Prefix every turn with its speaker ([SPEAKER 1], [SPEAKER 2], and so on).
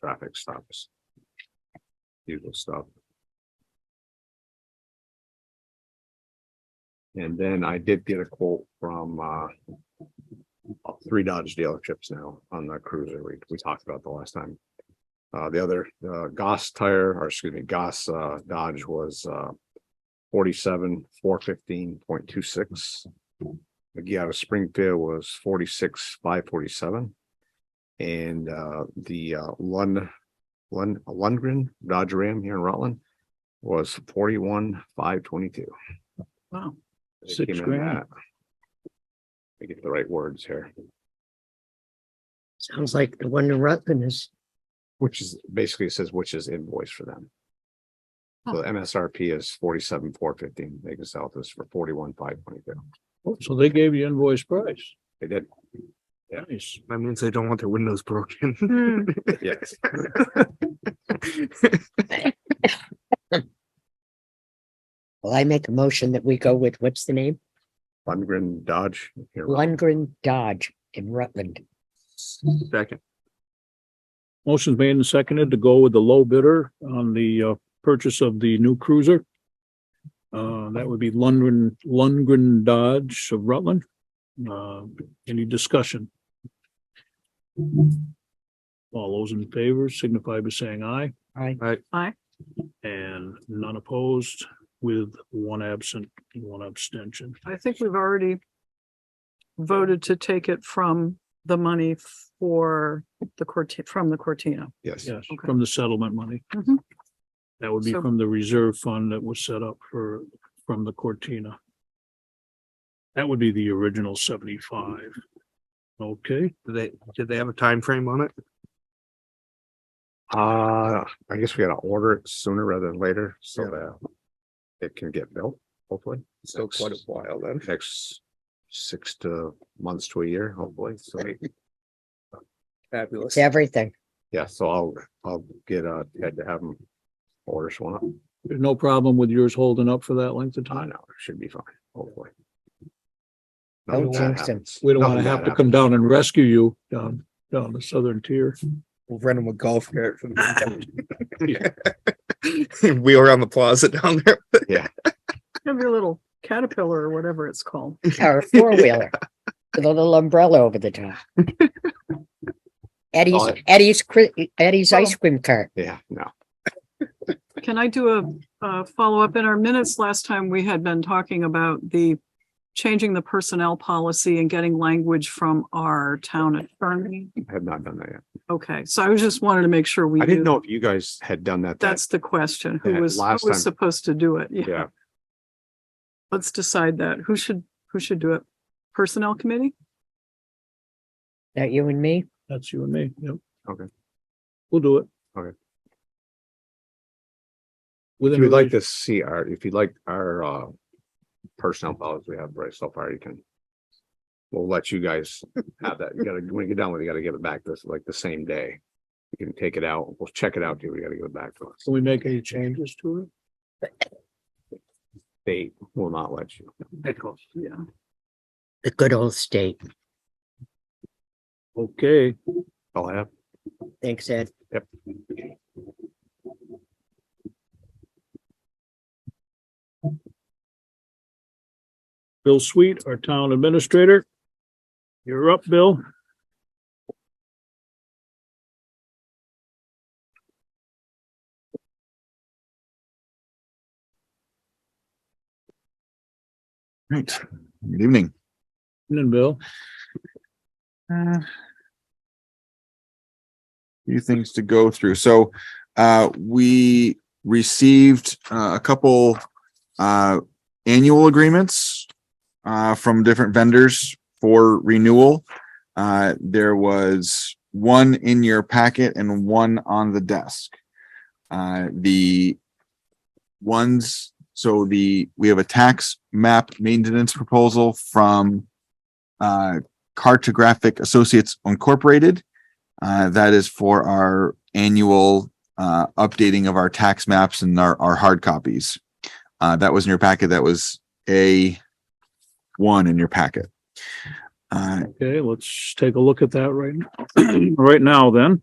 [SPEAKER 1] traffic stops. Usual stuff. And then I did get a quote from uh. Three Dodge dealerships now on the cruiser we we talked about the last time. Uh, the other, uh, Goss tire, or excuse me, Goss uh Dodge was uh. Forty-seven, four fifteen point two six. McGee out of Springfield was forty-six, five forty-seven. And uh, the uh, Lund, Lund, Lundgren Dodge Ram here in Rutland was forty-one, five twenty-two.
[SPEAKER 2] Wow. Six
[SPEAKER 1] Six
[SPEAKER 2] grand.
[SPEAKER 1] grand. I get the right words here,
[SPEAKER 3] Sounds like the one in Rutland is,
[SPEAKER 1] which is basically it says which is invoice for them. So the MSRP is forty-seven, four fifteen. They can sell this for forty-one, five twenty-two.
[SPEAKER 2] Oh, So they gave you invoice price.
[SPEAKER 1] They did,
[SPEAKER 2] Nice.
[SPEAKER 4] That means they don't want their windows broken.
[SPEAKER 1] yes.
[SPEAKER 3] well, I make a motion that we go with, what's the name?
[SPEAKER 1] Lundgren Dodge here. in Rutland.
[SPEAKER 3] Lundgren Dodge in Rutland.
[SPEAKER 4] Second,
[SPEAKER 2] Motion's made and seconded to go with the low bidder on the uh purchase of the new cruiser. Uh, that would be Lundgren, Lundgren Dodge of Rutland. Uh, any discussion? All those in favor signify by saying aye
[SPEAKER 3] All
[SPEAKER 2] and none opposed with one absent, and one abstention.
[SPEAKER 5] I think we've already voted to take it from the money for the Corti, from the Cortina.
[SPEAKER 1] Yes,
[SPEAKER 2] Yes,
[SPEAKER 5] Okay.
[SPEAKER 2] from the settlement money.
[SPEAKER 5] Mhm.
[SPEAKER 2] That would be
[SPEAKER 5] So-
[SPEAKER 2] from the reserve fund that was set up for, from the Cortina. That would be the original seventy-five. Okay,
[SPEAKER 4] did they, did they have a time frame on it?
[SPEAKER 1] uh, I guess we gotta order it sooner rather than later so
[SPEAKER 4] Yeah.
[SPEAKER 1] that it can get built, hopefully.
[SPEAKER 4] Still quite a while then.
[SPEAKER 1] Next six to months to a year, hopefully, so.
[SPEAKER 4] Fabulous.
[SPEAKER 3] It's everything.
[SPEAKER 1] Yeah, so I'll, I'll get, uh, had to have them order one up.
[SPEAKER 2] there's no problem with yours holding up for that length of
[SPEAKER 1] I
[SPEAKER 2] time.
[SPEAKER 1] know, it should be fine, hopefully. Nothing
[SPEAKER 3] Don't
[SPEAKER 1] bad
[SPEAKER 3] jinx 'em.
[SPEAKER 1] happens.
[SPEAKER 2] We don't want to
[SPEAKER 1] Nothing
[SPEAKER 2] have
[SPEAKER 1] bad
[SPEAKER 2] to
[SPEAKER 1] happens.
[SPEAKER 2] come down and rescue you down, down the southern tier.
[SPEAKER 4] We'll rent them a golf cart. from- Wheel around the plaza down there.
[SPEAKER 5] Have your little caterpillar or whatever it's called.
[SPEAKER 3] Or a four-wheeler with a little umbrella over the top. Eddie's,
[SPEAKER 1] Oh.
[SPEAKER 3] Eddie's, cri- Eddie's ice cream cart.
[SPEAKER 1] Yeah, no,
[SPEAKER 5] Can I do a, uh follow-up? In our minutes last time, we had been talking about the changing the personnel policy and getting language from our town attorney.
[SPEAKER 1] I have not done that yet.
[SPEAKER 5] Okay, so I was just wanted to make sure we
[SPEAKER 1] I didn't
[SPEAKER 5] knew.
[SPEAKER 1] know if you guys had done that. that-
[SPEAKER 5] That's the question. Who
[SPEAKER 1] Yeah,
[SPEAKER 5] was, who
[SPEAKER 1] last time.
[SPEAKER 5] was supposed to do it?
[SPEAKER 1] Yeah,
[SPEAKER 5] Let's decide that. Who should, who should do it? Personnel committee?
[SPEAKER 3] That you and me?
[SPEAKER 2] That's you and me, yep.
[SPEAKER 1] Okay.
[SPEAKER 2] We'll do it.
[SPEAKER 1] Okay. if
[SPEAKER 2] Within
[SPEAKER 1] you'd like
[SPEAKER 2] like
[SPEAKER 1] to see our, if you'd like our, uh, personnel files we have right so far, you can. We'll let you guys have that. You gotta, when you get done with it, you gotta give it back this, like the same day. You can take it out. We'll check it out. too. We gotta give it back to us.
[SPEAKER 2] can we make any changes to it?
[SPEAKER 1] They will not let you.
[SPEAKER 5] Yeah.
[SPEAKER 3] The good old state.
[SPEAKER 2] Okay,
[SPEAKER 1] I'll have.
[SPEAKER 3] Thanks, Ed.
[SPEAKER 2] Bill Sweet, our town administrator. You're up, Bill.
[SPEAKER 6] Right, good evening.
[SPEAKER 2] And then Bill.
[SPEAKER 6] Uh, Few things to go through. So, uh, we received, uh, a couple, uh, annual agreements, uh, from different vendors for renewal. Uh, there was one in your packet and one on the desk. Uh, the ones, so the, we have a tax map maintenance proposal from, uh, Cartographic Associates Incorporated. Uh, that is for our annual uh, updating of our tax maps and our, our hard copies. Uh, that was in your packet. That was A one in your packet. Uh,
[SPEAKER 2] Okay, let's take a look at that right, now. right now then.